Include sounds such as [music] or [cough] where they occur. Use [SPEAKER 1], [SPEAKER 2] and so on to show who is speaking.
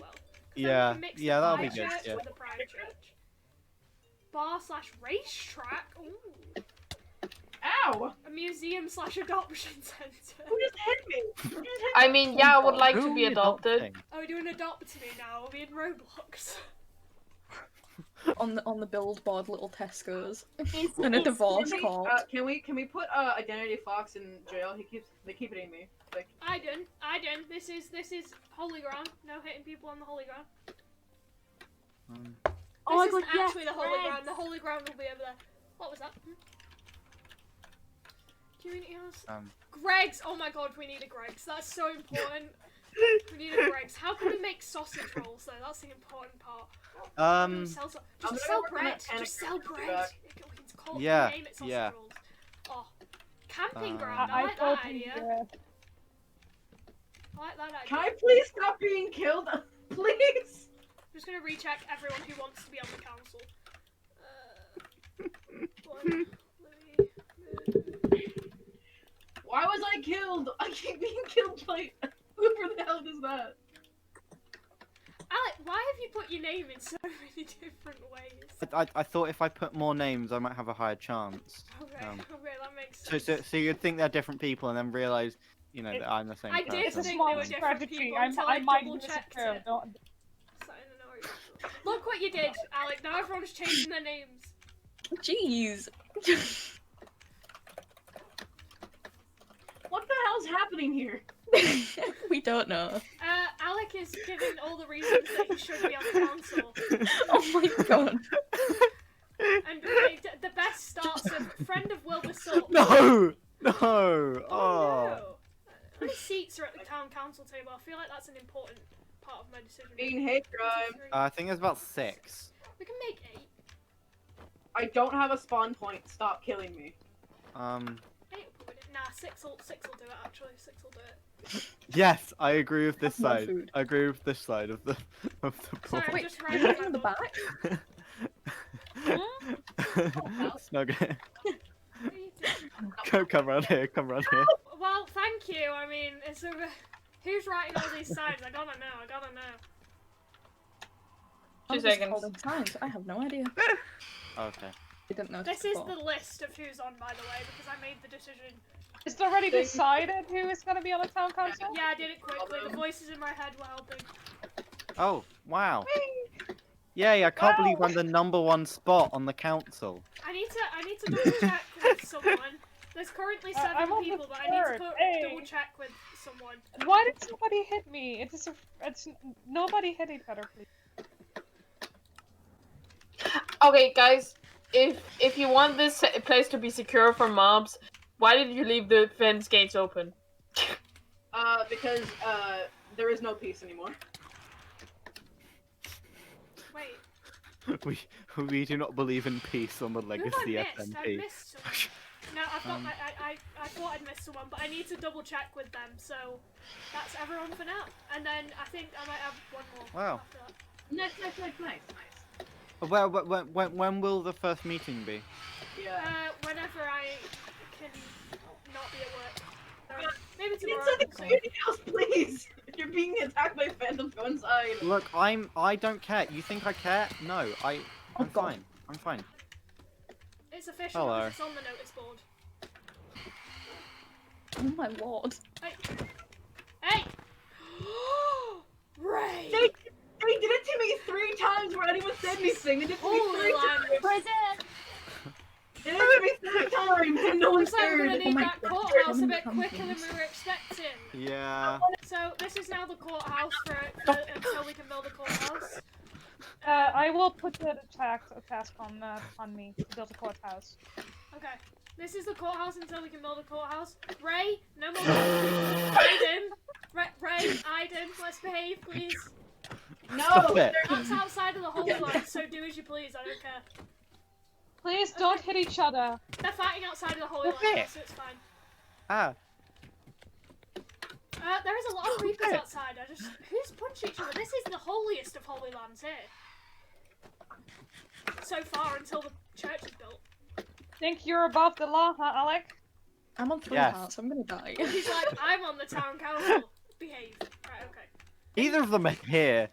[SPEAKER 1] So we
[SPEAKER 2] Yeah,
[SPEAKER 1] can mix
[SPEAKER 2] yeah,
[SPEAKER 1] the
[SPEAKER 2] that'll
[SPEAKER 1] pie
[SPEAKER 2] be good,
[SPEAKER 1] church
[SPEAKER 2] yeah.
[SPEAKER 1] With the prior church. Bar slash racetrack. Ooh.
[SPEAKER 3] Ow!
[SPEAKER 1] A museum slash adoption [laughs] center.
[SPEAKER 3] Who just hit me? Who just hit
[SPEAKER 4] I mean, yeah, I would like
[SPEAKER 2] Who
[SPEAKER 4] to be
[SPEAKER 2] is
[SPEAKER 4] adopted.
[SPEAKER 2] adopting?
[SPEAKER 1] Oh, we're doing adopt me now. Are we in Roblox?
[SPEAKER 5] on the on the billboard, little Tesco's.
[SPEAKER 3] me?
[SPEAKER 5] And a divorce
[SPEAKER 3] Can we-
[SPEAKER 5] call.
[SPEAKER 3] Uh, can we can we put uh, identity fox in jail? He keeps they keep hitting me. Like
[SPEAKER 1] [laughs] I done. I done. This is this is holy ground. No hitting people on the holy ground.
[SPEAKER 2] Um,
[SPEAKER 1] This
[SPEAKER 6] my
[SPEAKER 1] isn't
[SPEAKER 6] God, yes,
[SPEAKER 1] actually the holy
[SPEAKER 6] friends.
[SPEAKER 1] ground. The holy ground will be over there. What was that? Hmm? Community house.
[SPEAKER 2] um,
[SPEAKER 1] Greg's. Oh my god, we need a Greg's. That's so important. we need a Greg's. How can we make sausage rolls though? That's the important part. How do we
[SPEAKER 2] um,
[SPEAKER 1] sell so-
[SPEAKER 3] I'm
[SPEAKER 1] just
[SPEAKER 3] gonna
[SPEAKER 1] sell
[SPEAKER 3] work on
[SPEAKER 1] bread.
[SPEAKER 3] that
[SPEAKER 1] Just
[SPEAKER 3] anagram
[SPEAKER 1] sell
[SPEAKER 3] to
[SPEAKER 1] bread.
[SPEAKER 3] back.
[SPEAKER 1] We can- we can call it-
[SPEAKER 2] Yeah,
[SPEAKER 1] name it sausage
[SPEAKER 2] yeah.
[SPEAKER 1] rolls. Oh, camping
[SPEAKER 2] Uh,
[SPEAKER 1] ground. I,
[SPEAKER 6] I, I
[SPEAKER 1] like
[SPEAKER 6] told
[SPEAKER 1] that
[SPEAKER 6] you.
[SPEAKER 1] idea.
[SPEAKER 6] uh,
[SPEAKER 1] I like that idea.
[SPEAKER 3] can I please stop being killed? [laughs] please.
[SPEAKER 1] I'm just gonna recheck everyone who wants to be on the council. Uh,
[SPEAKER 2] [laughs]
[SPEAKER 1] one, three, uh,
[SPEAKER 3] Why was I killed? I keep being [laughs] killed by whoever the hell does that.
[SPEAKER 1] Alec, why have you put your name in so [laughs] many different ways?
[SPEAKER 2] I, I, I thought if I put more names, I might have a higher chance.
[SPEAKER 1] Okay,
[SPEAKER 2] Um,
[SPEAKER 1] okay, that makes
[SPEAKER 2] So,
[SPEAKER 1] sense.
[SPEAKER 2] so, so you'd think they're different people, and then realize, you know,
[SPEAKER 6] It-
[SPEAKER 2] that I'm the same
[SPEAKER 1] I did
[SPEAKER 2] person.
[SPEAKER 6] It's a
[SPEAKER 1] think they
[SPEAKER 6] small
[SPEAKER 1] were different
[SPEAKER 6] strategy.
[SPEAKER 1] people
[SPEAKER 6] I'm,
[SPEAKER 1] until I
[SPEAKER 6] I might
[SPEAKER 1] double
[SPEAKER 6] be
[SPEAKER 1] checked
[SPEAKER 6] secure.
[SPEAKER 1] it.
[SPEAKER 6] Don't,
[SPEAKER 1] So I don't know what you're- Look what you did, Alec. Now everyone's changing their names.
[SPEAKER 5] Jeez.
[SPEAKER 3] What the hell's happening here?
[SPEAKER 5] we don't know.
[SPEAKER 1] Uh, Alec is giving all the reasons that he should be on the council.
[SPEAKER 5] Oh my god.
[SPEAKER 1] And like, the- the best starts of friend of Wilbur Salt.
[SPEAKER 2] [laughs] [laughs] No! No! Oh!
[SPEAKER 1] Oh, no. How many seats are at the town council table? I feel like that's an important part of my decision.
[SPEAKER 3] Being hate
[SPEAKER 1] One,
[SPEAKER 3] crime.
[SPEAKER 1] two, three.
[SPEAKER 2] I think there's about six.
[SPEAKER 1] we can make eight.
[SPEAKER 3] I don't have a spawn point. Stop killing me.
[SPEAKER 2] Um,
[SPEAKER 1] Eight will probably do- Nah, six will six will do it. Actually, six will do it.
[SPEAKER 2] yes, I agree with this
[SPEAKER 5] Have more
[SPEAKER 2] side.
[SPEAKER 5] food.
[SPEAKER 2] I agree with this side of the of the
[SPEAKER 1] Sorry, I'm
[SPEAKER 5] Wait,
[SPEAKER 1] just
[SPEAKER 5] you
[SPEAKER 1] writing
[SPEAKER 5] look in the
[SPEAKER 1] that up.
[SPEAKER 5] back?
[SPEAKER 2] [laughs] ball. Snug it.
[SPEAKER 1] What are you doing?
[SPEAKER 2] Come, come round here. Come round here.
[SPEAKER 1] Well, thank you. I mean, it's over. Who's writing all these signs? I gotta know. I gotta know.
[SPEAKER 5] I'm just
[SPEAKER 4] seconds.
[SPEAKER 5] holding signs. I have no idea.
[SPEAKER 2] Okay.
[SPEAKER 5] I didn't know.
[SPEAKER 1] This is the list of who's on, by the way, because I made the decision.
[SPEAKER 4] Is it already
[SPEAKER 3] Thank-
[SPEAKER 4] decided who is going to be on the town council?
[SPEAKER 1] Yeah, I did it quickly. The voices in my head were helping.
[SPEAKER 2] Oh wow. Yay! I can't believe I'm the number one spot on the council.
[SPEAKER 1] I need to I need to double check with someone. There's currently
[SPEAKER 4] [laughs] I-
[SPEAKER 1] seven
[SPEAKER 4] I'm on the
[SPEAKER 1] people, but I need to
[SPEAKER 4] third.
[SPEAKER 1] put,
[SPEAKER 4] Hey.
[SPEAKER 1] double check with someone.
[SPEAKER 4] Why did somebody hit me? It is a, it's nobody hit each other, please. Okay, guys, if if you want this place to be secure from mobs, why did you leave the fence gates open?
[SPEAKER 3] Uh, because uh, there is no peace anymore.
[SPEAKER 1] Wait,
[SPEAKER 2] [laughs] We we do not believe in peace on the
[SPEAKER 1] who have I
[SPEAKER 2] legacy
[SPEAKER 1] missed? I
[SPEAKER 2] FNP.
[SPEAKER 1] missed someone. No, I've got
[SPEAKER 2] Um.
[SPEAKER 1] I, I, I, I thought I'd missed someone, but I need to double check with them. So that's everyone for now. And then I think I might have one more.
[SPEAKER 2] Wow.
[SPEAKER 1] After that.
[SPEAKER 3] Nice, nice, nice, nice, nice.
[SPEAKER 2] Well, when, when when will the first meeting be?
[SPEAKER 3] Yeah.
[SPEAKER 1] Uh, whenever I can not be at work. Sorry. Maybe tomorrow.
[SPEAKER 3] Inside the
[SPEAKER 1] so-
[SPEAKER 3] community house, [laughs] please. You're being attacked by phantoms. Go inside.
[SPEAKER 2] Look, I'm I don't care. You think I care? No, I
[SPEAKER 5] Oh,
[SPEAKER 2] I'm
[SPEAKER 5] God.
[SPEAKER 2] fine. I'm fine.
[SPEAKER 1] It's official.
[SPEAKER 2] Hello.
[SPEAKER 1] It's on the notice board.
[SPEAKER 5] Oh my lord.
[SPEAKER 1] Hey. Hey. [gasps] Ray.
[SPEAKER 3] They, they did it to me three times where anyone said anything. They did it to me
[SPEAKER 1] Holy
[SPEAKER 3] three times.
[SPEAKER 1] language.
[SPEAKER 6] Prison!
[SPEAKER 3] They did it to me three times and no one
[SPEAKER 1] Looks like we're gonna
[SPEAKER 3] cared. Oh
[SPEAKER 1] need
[SPEAKER 5] my
[SPEAKER 1] that
[SPEAKER 5] God.
[SPEAKER 1] courthouse a
[SPEAKER 5] Come,
[SPEAKER 1] bit
[SPEAKER 5] come,
[SPEAKER 1] quicker than
[SPEAKER 5] please.
[SPEAKER 1] we were expecting.
[SPEAKER 2] Yeah.
[SPEAKER 1] So this is now the courthouse for, for until we can build a courthouse.
[SPEAKER 4] Uh, I will put the attack a task on uh, on me to build a courthouse.
[SPEAKER 1] Okay. This is the courthouse until we can build a courthouse. Ray, no more. Aiden, Ray, Ray, Aiden, let's behave, please.
[SPEAKER 2] Stop
[SPEAKER 3] No.
[SPEAKER 2] it.
[SPEAKER 1] That's outside of the whole line, so do as you please. I don't care.
[SPEAKER 4] Please don't hit each other.
[SPEAKER 1] They're fighting outside of the whole
[SPEAKER 2] Okay.
[SPEAKER 1] line, so it's fine.
[SPEAKER 2] Ah,
[SPEAKER 1] Uh, there is a lot of creepers
[SPEAKER 2] Okay.
[SPEAKER 1] outside. I just who's punching each other? This is the holiest of holy lands here. So far, until the church is built.
[SPEAKER 4] Think you're above the law, huh, Alec?
[SPEAKER 5] I'm on three
[SPEAKER 2] Yes.
[SPEAKER 5] hearts. I'm gonna die.
[SPEAKER 1] He's like, I'm on the town council. Behave. Right. Okay.
[SPEAKER 2] either of them are here.